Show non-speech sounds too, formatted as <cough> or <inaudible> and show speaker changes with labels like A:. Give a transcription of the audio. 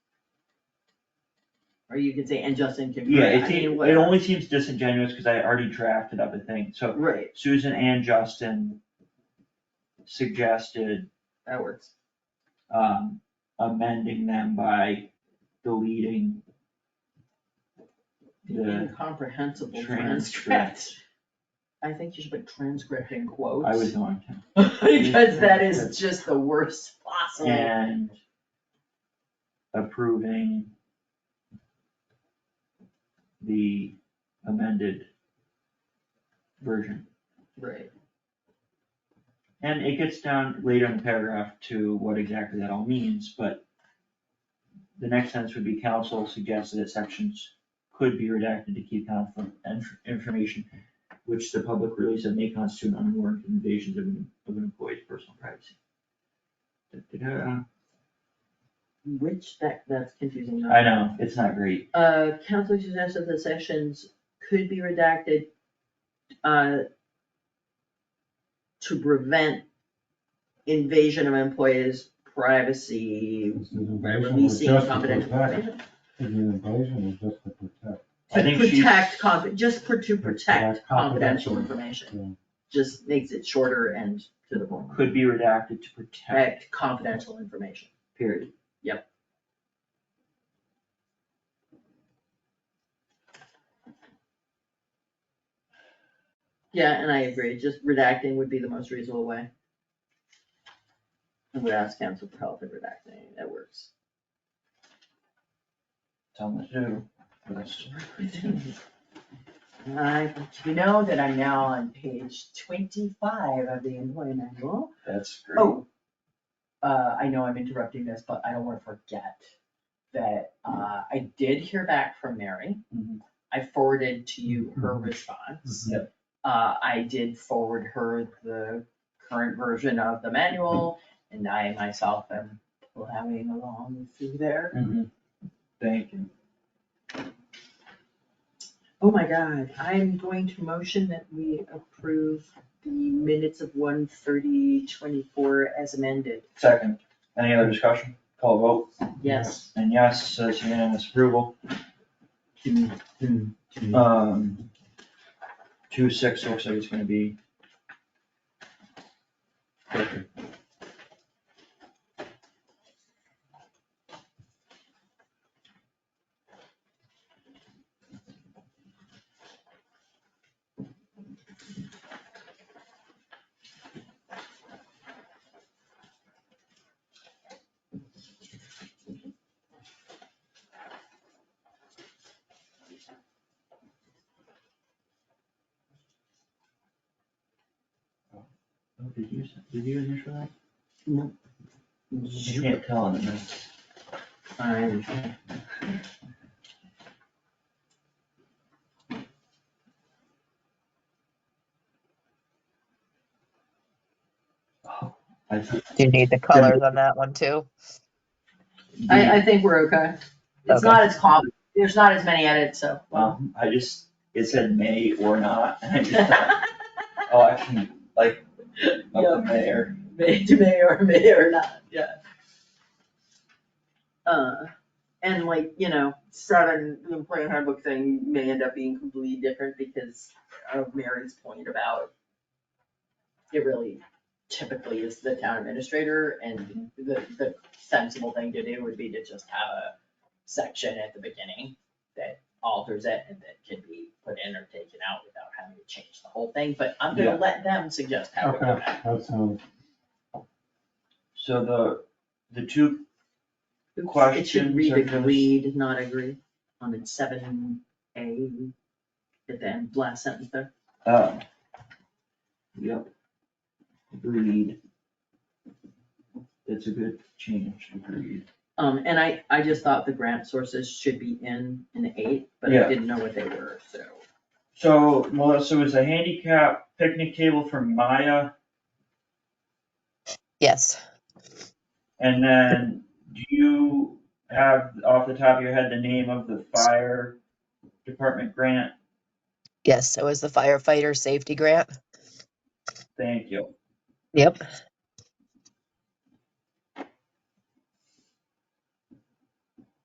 A: or you can say, and Justin can.
B: Yeah,
A: correct,"
B: it
A: I mean,
B: seems, it
A: whatever.
B: only seems disingenuous because I already drafted up a thing, so
A: Right,
B: Susan and Justin suggested,
A: that works.
B: um, amending them by deleting
A: The
B: Yeah.
A: Incomprehensible
B: Transcript.
A: transcript. I think you should put transcript in quotes.
B: I was going
A: <laughs> Because that is just the worst
B: to,
A: possible.
B: and approving the amended version.
A: Right,
B: And it gets down later in the paragraph to what exactly that all means, but the next sentence would be council suggested that sections could be redacted to keep confidential information which the public release of may constitute unwarranted invasions of an, of an employee's personal privacy. Da-da-da.
A: which that, that's confusing.
B: I know, it's not great.
A: Uh, council suggested that sessions could be redacted, uh, to prevent invasion of employees' privacy by releasing confidential information.
C: The invasion is just to protect.
B: I
A: To
B: think she's-
A: protect, confi- just for, to protect
C: Protect confidential
A: confidential information, just makes it shorter and to the point.
B: Could be redacted to protect,
A: Protect confidential information.
B: period.
A: Yeah, and I agree, just redacting would be the most reasonable way. I would ask council for help in redacting, that works.
B: Tell them to do. What else?
A: <laughs> I, you know that I'm now on page twenty-five of the employee manual.
B: That's great.
A: Oh, uh, I know I'm interrupting this, but I don't wanna forget that, uh, I did hear back from Mary.
B: Mhm.
A: I forwarded to you her response.
B: Yep.
A: Uh, I did forward her the current version of the manual, and I myself am plowing along through there.
B: Mhm. Thank you.
A: Oh my god, I'm going to motion that we approve the minutes of one thirty twenty-four as amended,
B: Second, any other discussion? Call vote.
A: yes.
B: And yes, so it's unanimous approval. Um, two six looks like it's gonna be. Oh, Did you, did you initial that? You can't tell on the minutes.
A: I'm
B: I think
D: Do you need the colors on that one too?
A: I, I think we're okay. It's
D: Okay.
A: not as com, there's not as many edits, so. <laughs>
B: Um, I just, it said may or not, and I
A: <laughs>
B: just thought, oh, I can, like, up in the air.
A: May, <laughs> may or may or not, yeah. Uh, and like, you know, seven, the employee handbook thing may end up being completely different because of Mary's point about it really typically is the town administrator and the, the sensible thing to do would be to just have a section at the beginning that alters it and that can be put in or taken out without having to change the whole thing, but I'm
B: Yeah.
A: gonna let them suggest how we do
C: Okay,
A: that.
C: that sounds,
B: So the, the two
A: It should
B: Questions
A: read
B: or
A: agreed, not agree, on its seven A, at the end, last sentence there.
B: Uh, Yep. Agreed. That's a good change, agreed.
A: Um, and I, I just thought the grant sources should be in, in eight, but
B: Yeah.
A: I didn't know what they were, so.
B: So Melissa, was the handicap picnic table for Maya,
D: Yes.
B: and then do you have off the top of your head the name of the fire department grant?
D: Yes. It was the firefighter safety grant.
B: Thank you.
D: Yep.